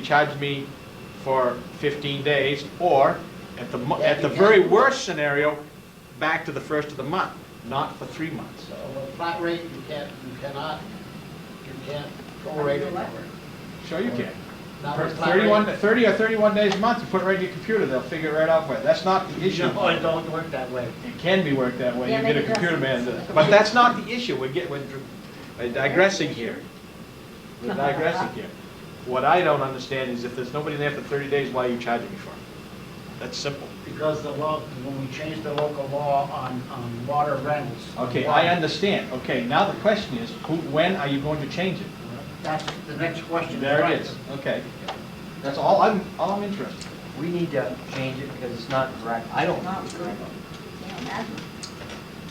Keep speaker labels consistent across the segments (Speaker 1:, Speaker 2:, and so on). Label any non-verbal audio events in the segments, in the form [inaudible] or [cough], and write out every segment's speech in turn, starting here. Speaker 1: charge me for 15 days, or at the, mo- at the very worst scenario, back to the first of the month, not for three months.
Speaker 2: So a flat rate, you can't, you cannot, you can't prorate it.
Speaker 1: Sure you can.
Speaker 2: Not
Speaker 1: For
Speaker 2: with flat
Speaker 1: 31,
Speaker 2: rate.
Speaker 1: 30 or 31 days a month, you put it right in your computer, they'll figure it right out for you. That's not the issue.
Speaker 2: No, it don't work that way.
Speaker 1: It can be worked that way,
Speaker 3: Yeah,
Speaker 1: you get a
Speaker 3: make
Speaker 1: computer man, to-
Speaker 3: adjustments.
Speaker 1: but that's not the issue, we're getting, we're digressing here. We're digressing here. What I don't understand is if there's nobody there for 30 days, why are you charging me for it? That's simple.
Speaker 2: Because the law, when we changed the local law on, on water rentals.
Speaker 1: Okay, I understand, okay, now the question is, who, when are you going to change it?
Speaker 2: That's the next question.
Speaker 1: There it is, okay. That's all I'm, all I'm interested in.
Speaker 4: We need to change it because it's not correct. I don't.
Speaker 3: Not good. Can't imagine.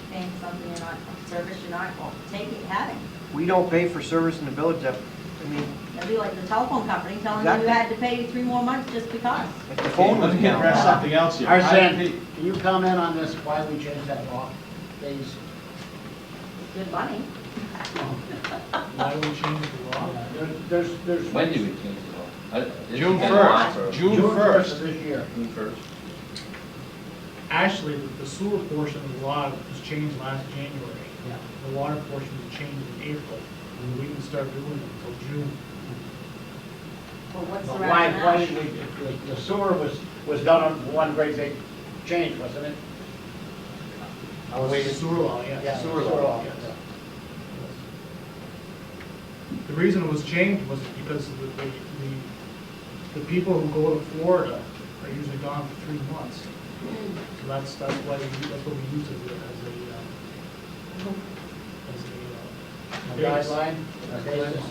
Speaker 3: Paying something you're not, service you're not taking, having.
Speaker 4: We don't pay for service in the village. that- I mean,
Speaker 3: That'd be like the telephone company telling you you had to
Speaker 4: Exactly.
Speaker 3: pay three more months just because.
Speaker 4: if the phone was
Speaker 1: Let's get rid of
Speaker 4: down.
Speaker 1: something else here.
Speaker 2: Arsen, can you comment on this, why we changed that law? Days,
Speaker 3: It's good money.
Speaker 5: [laughs] Why do we change the law?
Speaker 2: there- there's, there's.
Speaker 6: When do we change the law? Uh, I-
Speaker 1: June
Speaker 6: it's-
Speaker 1: first, June
Speaker 2: June first of
Speaker 1: first.
Speaker 2: this year.
Speaker 6: June first.
Speaker 5: Actually, the sewer portion of the law was changed last January.
Speaker 2: Yeah.
Speaker 5: The water portion was changed in April, and we didn't start doing it until June.
Speaker 3: Well, what's the
Speaker 2: But Why, why
Speaker 3: rationale?
Speaker 2: should we, the- the sewer was, was done on one great big change, wasn't it?
Speaker 5: I was
Speaker 2: waiting.
Speaker 5: Sewer law, yeah.
Speaker 2: Oh, Sewer law.
Speaker 5: yes.
Speaker 2: yeah.
Speaker 5: The reason it was changed was because of the, the- the, the people who go to Florida are usually gone for three months. So that's, that's why, we that's what we use it as a, uh, as a. uh, basis.
Speaker 2: Mm-hmm. Guideline, basis.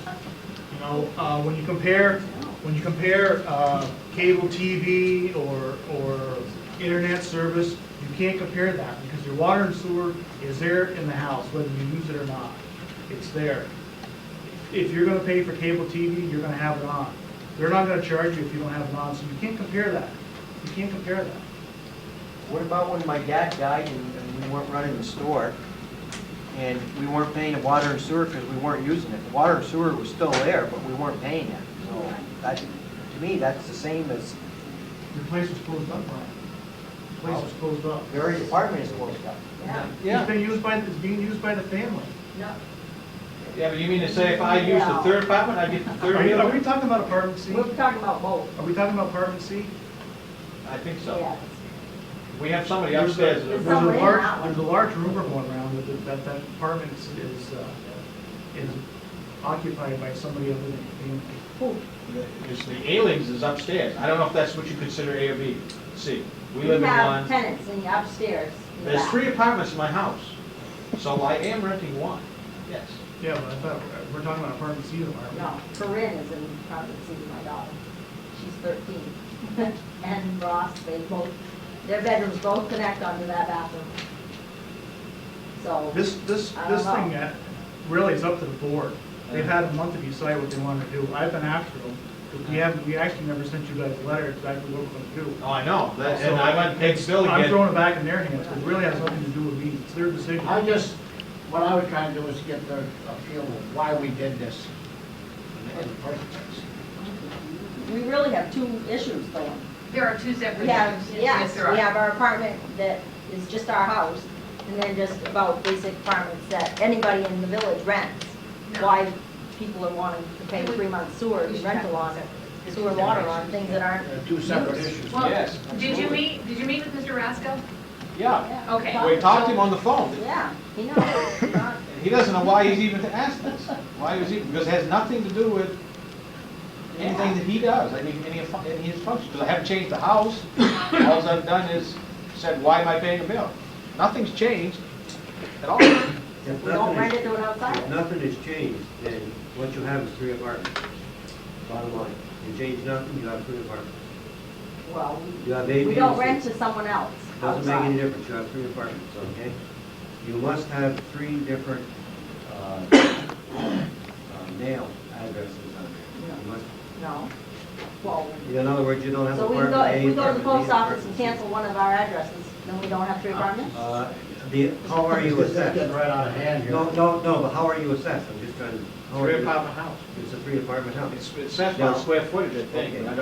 Speaker 5: You know, uh, when you compare, when you compare uh, cable TV or, or internet service, you can't compare that because your water and sewer is there in the house, whether you use it or not. It's there. If you're gonna pay for cable TV, you're gonna have it on. They're not gonna charge you if you don't have it on, so you can't compare that. You can't compare that.
Speaker 4: What about when my dad died and and we weren't running the store? And we weren't paying the water and sewer because we weren't using it. The water and sewer was still there, but we weren't paying it. So that, to me, that's the same as
Speaker 5: Your place was closed up, Brian. Your place was closed up.
Speaker 4: your apartment is closed up.
Speaker 3: Yeah,
Speaker 1: Yeah.
Speaker 5: It's been used by, it's being used by the family.
Speaker 3: no,
Speaker 1: Yeah, but you mean to say if I use the third apartment, I get the
Speaker 5: Are you- are
Speaker 1: third
Speaker 5: we
Speaker 1: bill?
Speaker 5: talking about apartment C?
Speaker 3: we're talking about both.
Speaker 5: Are we talking about apartment C?
Speaker 1: I think so.
Speaker 3: Yeah.
Speaker 1: We have somebody upstairs.
Speaker 5: There's a
Speaker 1: that-
Speaker 3: somebody in
Speaker 5: large,
Speaker 3: that one.
Speaker 5: there's a large rumor going around that, the- that that apartment is, is, uh, is occupied by somebody other than the family.
Speaker 1: Is the Alings is upstairs. I don't know if that's what you consider A or B, C. We
Speaker 3: You
Speaker 1: live in
Speaker 3: have
Speaker 1: one.
Speaker 3: tenants in the upstairs. in the
Speaker 1: There's
Speaker 3: back.
Speaker 1: three apartments in my house, so I am renting one, yes.
Speaker 5: Yeah, but I thought, uh, we're- we're talking about apartment C, though, aren't we?
Speaker 3: No, Corinne is in private city, my daughter. She's thirteen. [laughs] And Ross, they both, their bedrooms both connect onto that bathroom. So,
Speaker 5: This, this,
Speaker 3: I don't
Speaker 5: this thing
Speaker 3: know.
Speaker 5: uh, really is up to the board. They've had a month to decide what they want to do. I've been after them, but we haven't, we actually never sent you guys a letter exactly what we're going to do.
Speaker 1: Oh, I know, that- and I went and paid the bill
Speaker 5: I'm
Speaker 1: again.
Speaker 5: throwing it back in their hands, because it really has nothing to do with me. It's their decision.
Speaker 2: I just, what I was trying to do was get the, a feel of why we did this in the first place.
Speaker 3: we really have two issues going.
Speaker 7: There are two separate
Speaker 3: We have,
Speaker 7: issues.
Speaker 3: yes,
Speaker 7: there are.
Speaker 3: we have our apartment that is just our house, and then just about basic apartments that anybody in the village rents.
Speaker 7: No.
Speaker 3: Why people are wanting to pay three months sewer
Speaker 7: We should have
Speaker 3: rental on,
Speaker 7: them separate.
Speaker 3: sewer water on things that aren't.
Speaker 2: They're two separate issues.
Speaker 7: Well,
Speaker 1: Yes,
Speaker 7: did you
Speaker 1: absolutely.
Speaker 7: meet, did you meet with Mr. Rasko?
Speaker 1: Yeah,
Speaker 7: Okay.
Speaker 1: we talked to him on the phone.
Speaker 3: Yeah, he knows, He's not-
Speaker 1: He doesn't know why he's even asked this. Why was he, because it has nothing to do with anything that he does, any, any of any of his functions. Because I haven't changed the house. All I've done is said, why am I paying a bill? Nothing's changed at all.
Speaker 8: If
Speaker 3: we don't
Speaker 8: nothing
Speaker 3: rent
Speaker 8: is-
Speaker 3: it to an
Speaker 8: if
Speaker 3: outsider.
Speaker 8: nothing has changed, then what you have is three apartments, bottom line. You change nothing, you have three apartments.
Speaker 3: Well,
Speaker 8: You have
Speaker 3: we
Speaker 8: eight
Speaker 3: we don't
Speaker 8: units.
Speaker 3: rent to someone else
Speaker 8: Doesn't make
Speaker 3: outside.
Speaker 8: any difference, you have three apartments, okay? You must have three different uh, [coughs] uh, mail addresses on there. You must-
Speaker 3: No. Well,
Speaker 8: In other words, you don't have
Speaker 3: so we go,
Speaker 8: apartment
Speaker 3: if
Speaker 8: A,
Speaker 3: we go to the
Speaker 8: apartment B,
Speaker 3: post office and
Speaker 8: apartment
Speaker 3: cancel one of our addresses, then we don't have three
Speaker 8: C.
Speaker 3: apartments?
Speaker 8: Uh, the- How are you
Speaker 2: This is getting
Speaker 8: assessed?
Speaker 2: right out of hand here.
Speaker 8: No, no, no, but how are you assessed? I'm just trying to Oh,
Speaker 1: Three
Speaker 8: it-
Speaker 1: apartment house.
Speaker 8: It's a three apartment house.
Speaker 1: It's, it's set by
Speaker 8: No.
Speaker 1: square footage, I think,
Speaker 8: Okay.
Speaker 1: but I